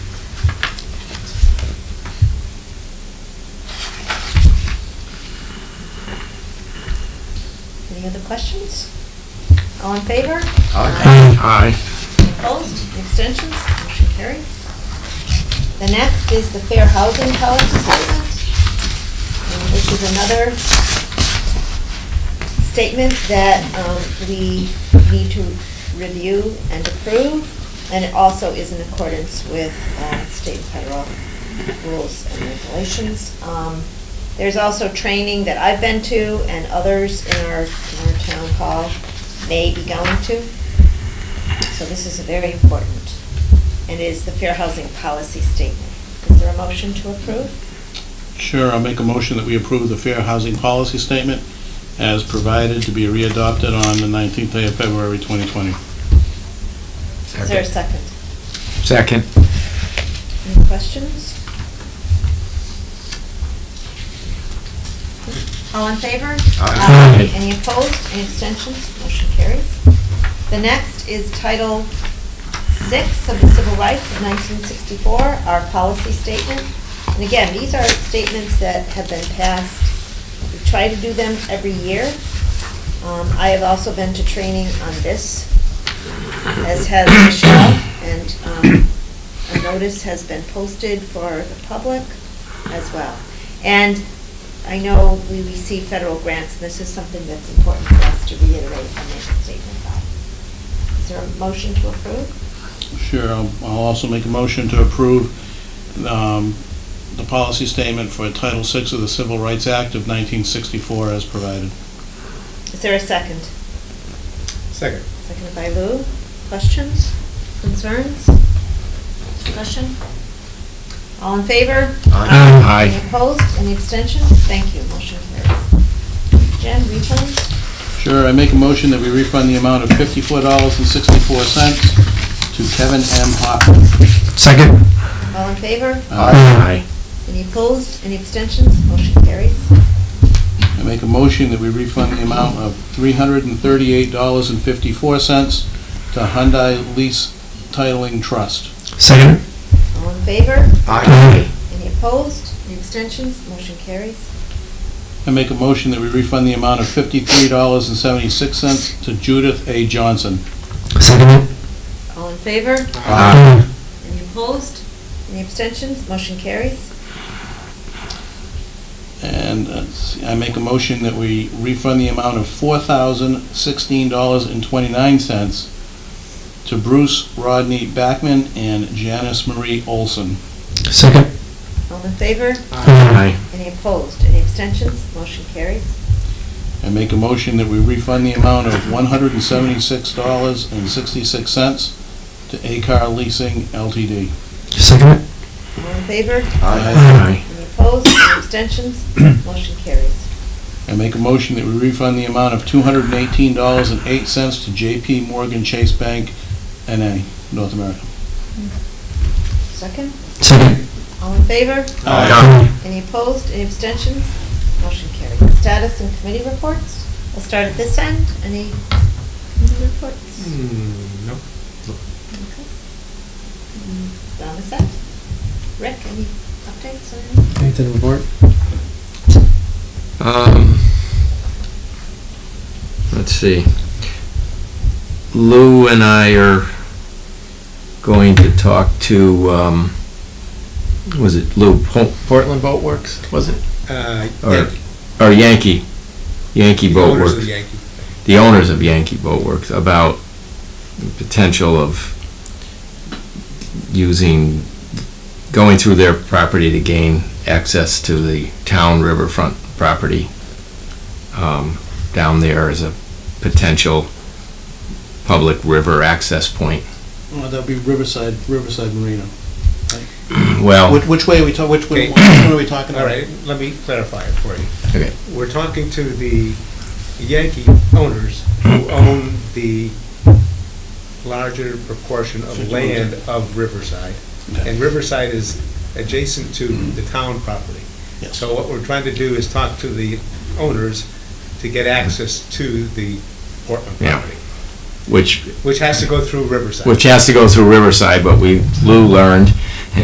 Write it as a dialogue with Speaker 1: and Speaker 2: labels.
Speaker 1: Any other questions? All in favor?
Speaker 2: Aye.
Speaker 1: Any Opposed? Any Abstentions? Motion carried. The next is the Fair Housing Policy Statement. And This is another statement that um, we need to review and approve, and it also is in accordance with uh, state and federal rules and regulations. Um, There's also training that I've been to and others in our, in our town hall may be going to. So this is very important, and is the Fair Housing Policy Statement. Is there a motion to approve?
Speaker 3: Sure, I'll make a motion that we approve the fair housing policy statement as provided to be readopted on the 19th day of February 2020.
Speaker 1: Is there a second?
Speaker 2: Second.
Speaker 1: Any questions? All in favor?
Speaker 2: Aye.
Speaker 1: Any opposed, any abstentions? Motion carries. The next is Title VI of the Civil Rights of 1964, our policy statement. And again, these are statements that have been passed. We try to do them every year. Um, I have also been to training on this, as has Michelle, and um, a notice has been posted for the public as well. And I know we receive federal grants, and this is something that's important for us to reiterate and make a statement about. Is there a motion to approve?
Speaker 3: Sure, I'll I'll also make a motion to approve um, the policy statement for Title VI of the Civil Rights Act of 1964 as provided.
Speaker 1: Is there a second?
Speaker 4: Second.
Speaker 1: Seconded by Lou. Questions? Concerns? Discussion? All in favor?
Speaker 2: Aye.
Speaker 1: Any opposed? Any abstentions? Thank you. Motion carries. Jen, refunds?
Speaker 3: Sure, I make a motion that we refund the amount of $54.64 to Kevin M. Hoffman.
Speaker 2: Second.
Speaker 1: All in favor?
Speaker 2: Aye.
Speaker 1: Any opposed? Any abstentions? Motion carries.
Speaker 3: I make a motion that we refund the amount of $338.54 to Hyundai Lease Titling Trust.
Speaker 2: Mm. Second.
Speaker 1: All in favor?
Speaker 2: Aye.
Speaker 1: Any opposed? Any abstentions? Motion carries.
Speaker 3: I make a motion that we refund the amount of $53.76 to Judith A. Johnson.
Speaker 2: Mm. Second.
Speaker 1: All in favor?
Speaker 2: Aye.
Speaker 1: Any opposed? Any abstentions? Motion carries.
Speaker 3: And uh, I make a motion that we refund the amount of $4,016.29 to Bruce Rodney Backman and Janice Marie Olson.
Speaker 2: Mm. Second. Mm.
Speaker 1: All in favor?
Speaker 2: Aye.
Speaker 1: Any opposed? Any abstentions? Motion carries.
Speaker 3: I make a motion that we refund the amount of $176.66 to Acar Leasing LTD.
Speaker 2: Second.
Speaker 1: All in favor?
Speaker 2: Aye.
Speaker 1: Any opposed? Any abstentions? Motion carries.
Speaker 3: I make a motion that we refund the amount of $218.08 to JP Morgan Chase Bank, NA, North America.
Speaker 1: Second?
Speaker 2: Second. Mm.
Speaker 1: All in favor?
Speaker 2: Aye.
Speaker 1: Any opposed? Any abstentions? Motion carries. Status and committee reports. We'll start at this end. Any committee reports?
Speaker 4: Hmm, nope.
Speaker 1: Okay. Mm, Down this end. Rick, any updates or anything?
Speaker 4: Anything to report?
Speaker 5: Um, let's see. Lou and I are going to talk to, um, was it Lou Po- Portland Boat Works? Was it?
Speaker 4: Uh,
Speaker 5: Or-
Speaker 4: Yankee.
Speaker 5: Or Yankee, Yankee
Speaker 4: The
Speaker 5: Boat
Speaker 4: owners of the
Speaker 5: Works,
Speaker 4: Yankee.
Speaker 5: the owners of Yankee Boat Works, about the potential of using, going through their property to gain access to the town riverfront property um, down there as a potential public river access point.
Speaker 3: Well, Oh, that'd be Riverside, Riverside Marina.
Speaker 5: Well,
Speaker 3: Which, which way are we talking, which way,
Speaker 4: Oh. Okay.
Speaker 3: which one are we talking
Speaker 4: All
Speaker 3: about?
Speaker 4: right, let me clarify it for you.
Speaker 5: Okay.
Speaker 4: We're talking to the Yankee owners who own the larger proportion of
Speaker 3: Fifty
Speaker 4: land of Riverside.
Speaker 3: Okay. Mm-hmm.
Speaker 4: And Riverside is adjacent to the town property.
Speaker 3: Yes.
Speaker 4: So what we're trying to do is talk to the owners to get access to the Portland
Speaker 5: Yeah.
Speaker 4: property,
Speaker 5: which,
Speaker 4: which has to go through Riverside.
Speaker 5: which has to go through Riverside, but we, Lou learned